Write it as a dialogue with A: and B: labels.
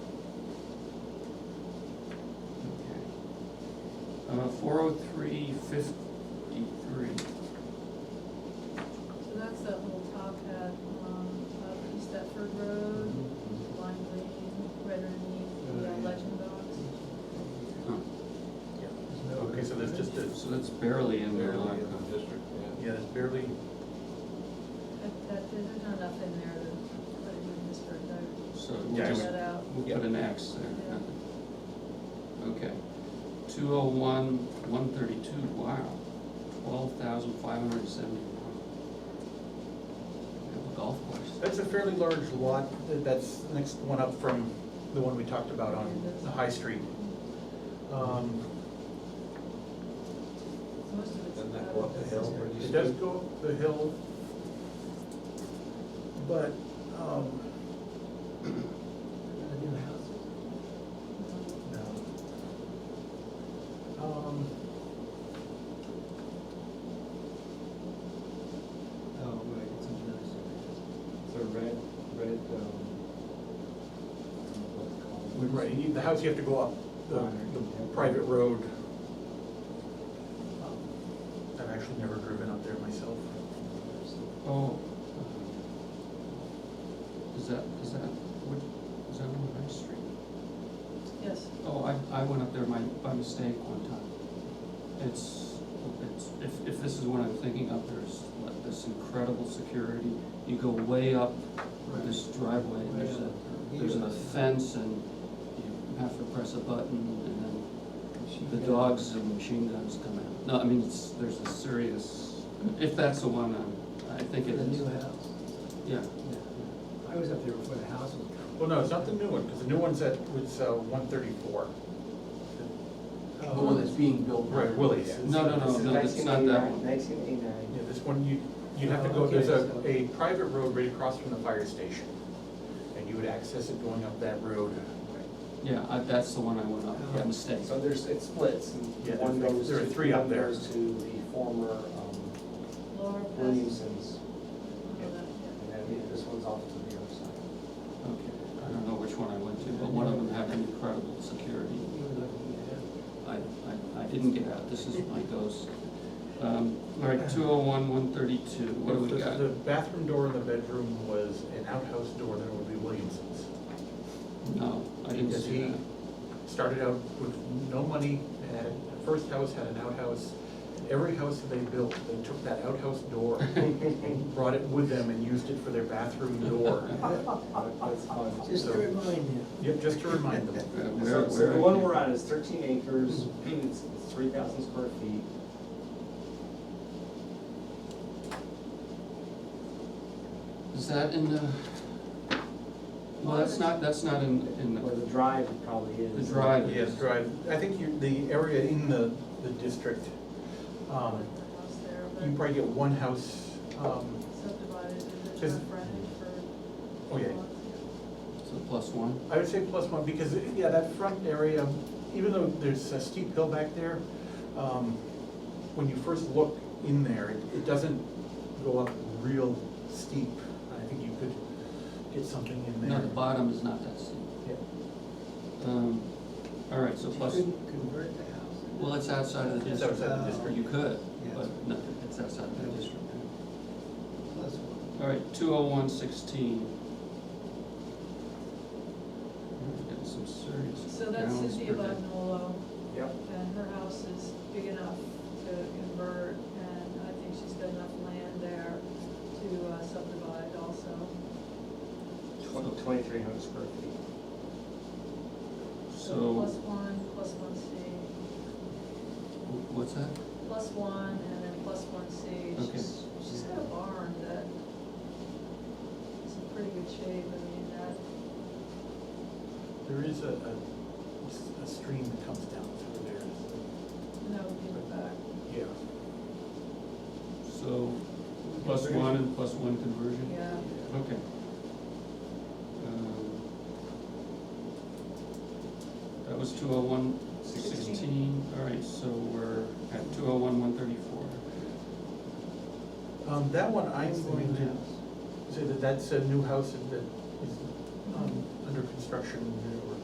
A: four oh three fifty-three.
B: So that's that little top hat, um, up East Stepford Road, Lime Lane, right underneath the uh, legend box.
C: Okay, so that's just a,
A: So that's barely in there, like, uh,
D: district,
C: yeah, that's barely,
B: That, that, there's not enough in there to put it in this for a
A: so we'll
C: Yeah, I
A: just,
B: That out.
A: we'll put an X there. Okay, 201, 132. wow, twelve thousand five hundred and seventy-one. Have a golf course.
C: that's a fairly large lot, Th- that's the next one up from the one we talked about on the High Street. Um,
B: Most of it's.
D: Doesn't that
B: out
D: go
B: of
D: up the hill where
C: It does go up the hill, but, um. No. Um,
E: Oh, right, it's interesting. So red, red, um, I don't know what to call it.
C: Right, you- the house, you have to go up the, the private road. Um, I've actually never driven up there myself.
A: Oh. um, Is that, is that, what, is that on High Street?
B: Yes,
A: Oh, I, I went up there my, by mistake one time. It's, it's, if, if this is what I'm thinking of, there's like this incredible security. You go way up this driveway, and there's a, there's a fence and you have to press a button and then the dogs and machine guns come out. No, I mean, it's, there's a serious, if that's the one I'm, I think
E: The
A: it
E: new
A: is.
E: house.
A: Yeah,
E: Yeah. I was up there before the house was built.
C: Well, no, it's not the new one, because the new one's at, was uh, one thirty-four.
E: Oh,
D: The one that's being built. now.
C: Right, Willie's.
D: Yeah.
A: No, no, no, no, that's not that one.
F: Nineteen eighty-nine.
C: Yeah, this one, you, you'd have to
E: Oh,
C: go,
E: okay,
C: there's a,
E: so-
C: a private road right across from the fire station. And you would access it going up that road.
A: Yeah, I, that's the one I went up, by
C: Yeah.
A: mistake.
F: So there's, it splits, and
C: Yeah,
F: one
C: there-
F: goes
C: there
F: to,
C: are three up
F: one
C: there.
F: goes to the former um,
B: Laura passed.
F: Williamson's,
B: Oh, that, yeah.
F: and then this one's off to the other side.
A: Okay, I don't know which one I went to, but one of them had an incredible security.
E: You were looking at it.
A: I, I, I didn't get out, this is my ghost. Um, all right, two oh one, one thirty-two, what do we
C: The-
A: got?
C: The bathroom door in the bedroom was an outhouse door, then it would be Williamson's.
A: No, I didn't
C: Because
A: see
C: he
A: that.
C: started out with no money, and had, the first house had an outhouse. Every house that they built, they took that outhouse door, and brought it with them and used it for their bathroom door.
E: That's fun. Just to
C: So-
E: remind you.
C: Yep, just to remind them.
A: Uh,
F: So
A: where-
F: so
A: where-
F: the one we're on is thirteen acres, it's three thousand square feet.
A: Is that in the, well, that's not, that's not in, in
F: Where
A: the,
F: the drive probably is.
A: The drive.
C: Yes, drive, I think you, the area in the, the district, um,
B: Like the house there,
C: you
B: but
C: probably get one house, um,
B: subdivided into
C: Is-
B: a frontage for.
C: oh yeah.
B: lots,
A: so plus one?
C: I would say plus one, because, yeah, that front area, even though there's a steep hill back there, um, when you first look in there, it, it doesn't go up real steep. I think you could get something in
A: No,
C: there.
A: the bottom is not that steep.
C: Yeah.
A: Um, all right, so
E: You
A: plus,
E: couldn't convert the house.
A: well, it's outside of the
C: It's
A: district.
C: outside the district.
A: You could,
E: Yeah.
A: but no, it's outside of the district.
E: Plus one.
A: All right, two oh one sixteen. Getting some serious.
B: So that's
A: gallons
B: Cynthia
A: per day.
B: Bagnolo,
F: Yep.
B: and her house is big enough to convert, and I think she's got enough land there to uh, subdivide also.
F: Twenty-three hundred square feet.
B: Plus
A: So,
B: one, plus one C,
A: wh- what's that?
B: plus one, and then plus one C.
A: Okay.
B: She's, she's got a barn that is in pretty good shape, I mean, that,
C: There is a, a, a stream that comes down through there.
B: that would be in the back.
C: Yeah.
A: So, plus one and plus one conversion?
B: Yeah,
A: Okay. Um, That was two oh one sixteen, all right, so we're at two oh one one thirty-four.
C: Um, that one, I'm going to say that that's a new house that is, um, under construction,